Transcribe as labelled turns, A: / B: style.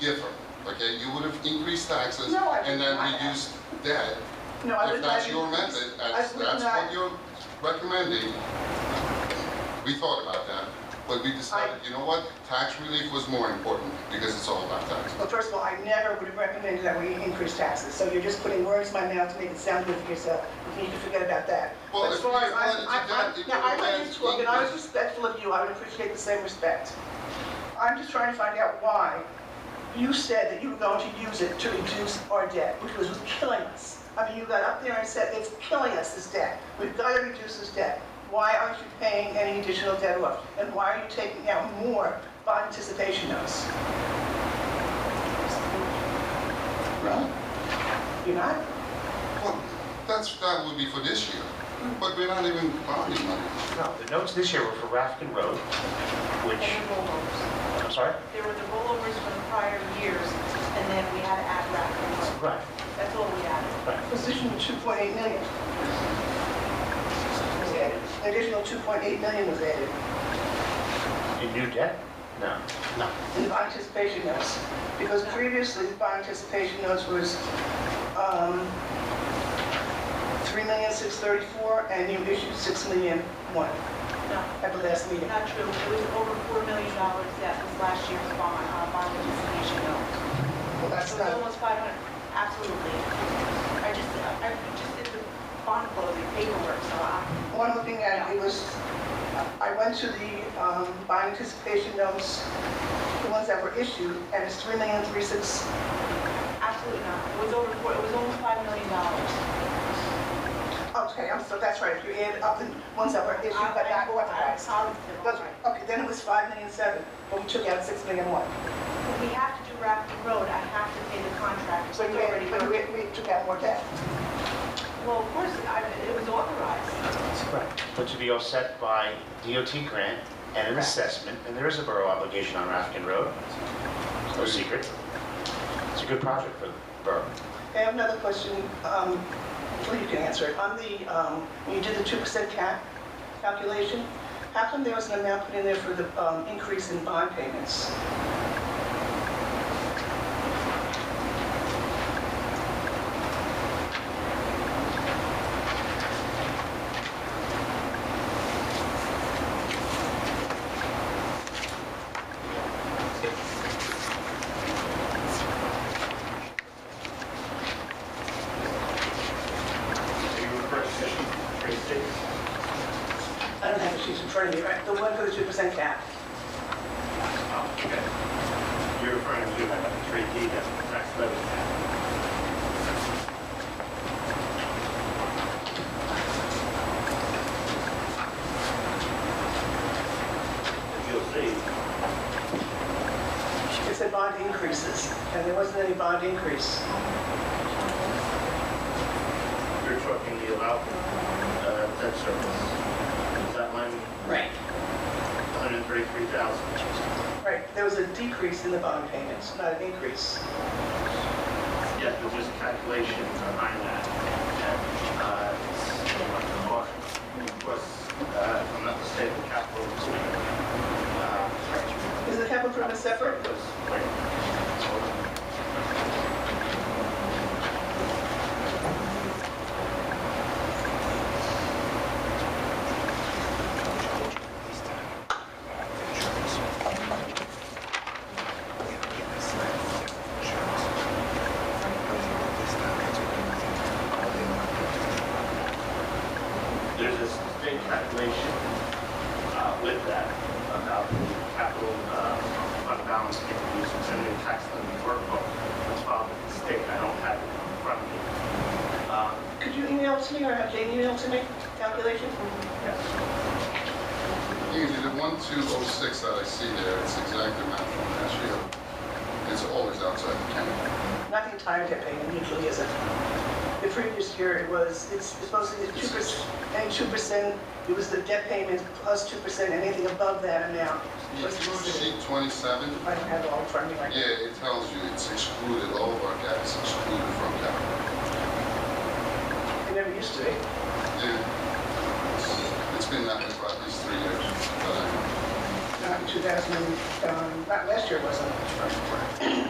A: different, okay? You would have increased taxes
B: No, I would
A: and then
B: not have.
A: reduced debt.
B: No, I
A: If
B: would
A: that's
B: not
A: your
B: increase-
A: method, that's,
B: I would
A: that's
B: not-
A: what you're recommending. We thought about that, but we decided, you know what? Tax relief was more important because it's all about taxes.
B: Well, first of all, I never would have recommended that we increase taxes, so you're just putting words in my mouth to make it sound good for yourself. You need to forget about that.
A: Well,
B: But as
A: if
B: far
A: you
B: as I-
A: wanted to
B: I- I-
A: do that, you
B: Now, I
A: would've
B: went
A: had
B: into it, and I was
A: increase.
B: respectful of you, I would appreciate the same respect. I'm just trying to find out why you said that you were going to use it to reduce our debt, which was killing us. I mean, you got up there and said, it's killing us, this debt. We've got to reduce this debt. Why aren't you paying any additional debt off? And why are you taking out more bond anticipation notes?
A: Right.
B: You're not?
A: Well, that's, that would be for this year, but we're not even borrowing money.
C: No, the notes this year were for Rafkin Road, which,
D: And the rollovers.
C: I'm sorry?
D: There were the rollovers from prior years, and then we had to add rack.
C: Right,
D: That's all we added.
C: right.
B: Position of 2.8 million was added. An Additional 2.8 million was added
C: In new debt? No. No.
B: in bond anticipation notes. Because previously, the bond anticipation notes was um, 3,634,000, and you issued 6 million one
D: No,
B: at the last meeting.
D: not true. It was over $4 million that was last year's bond, uh, bond anticipation note.
B: Well,
D: It
B: that's
D: was
B: not,
D: almost 500, absolutely. I just, I just did the bond closing paperwork, so I,
B: one looking at, it was, I went to the um, bond anticipation notes, the ones that were issued, and it's 3,360,000.
D: absolutely not. It was over, four- it was almost $5 million.
B: Okay, I'm so, that's right, if you add up the ones that were issued but
D: I-
B: not
D: I'm
B: authorized.
D: Positive.
B: That's right, okay, then it was five million seven, but we took out six million one.
D: If We have to do Rafkin Road. I have to pay the contractor.
B: So
D: It's
B: you,
D: already
B: but
D: done.
B: we, we took out more debt.
D: Well, of course, I- it was authorized.
C: Right. But to be offset by DOT grant and an assessment, and there is a borough obligation on Rafkin Road. It's no secret. It's a good project for the borough.
B: I have another question, um, well, you can answer it. On the, um, when you did the two percent cap calculation, how come there was an amount put in there for the, um, increase in bond payments?
E: Are you referring to section 36?
B: I don't have the sheets in front of me, right? The one for the two percent cap.
E: Oh, okay. You're referring to item 3D, that's the tax levy cap. If you'll see,
B: It said bond increases, and there wasn't any bond increase.
E: you're talking the allowed uh, debt service. Is that line
B: Right.
E: 133,000?
B: Right, there was a decrease in the bond payments, not an increase.
E: Yes, but there's a calculation behind that. and, uh, it's more- Of course, uh, if I'm not mistaken, capital improvement. uh,
B: Is the capital improvement separate?
E: was- wait. There's a state calculation uh, with that about the capital uh, fund balance being used in the tax levy workbook. That's filed with the state. I don't have it in front of me. Um,
B: Could you email it to me or have Jane email it to me, calculation?
E: Yes.
A: Usually the 1206 that I see there, it's exactly matched from last year. It's always outside the county.
B: Not the entire debt payment, usually isn't. The previous year, it was, it's it's supposed to be two percent, and two percent, it was the debt payment plus two percent, anything above that amount. was
A: Sheet
B: considered.
A: 27,
B: I don't have it all in front of me right now.
A: yeah, it tells you it's excluded, all of our debt is excluded from capital.
B: It never used to be.
A: Yeah. It's- It's been that way for at least three years. but I-
B: Not in 2000, um, not last year, it wasn't.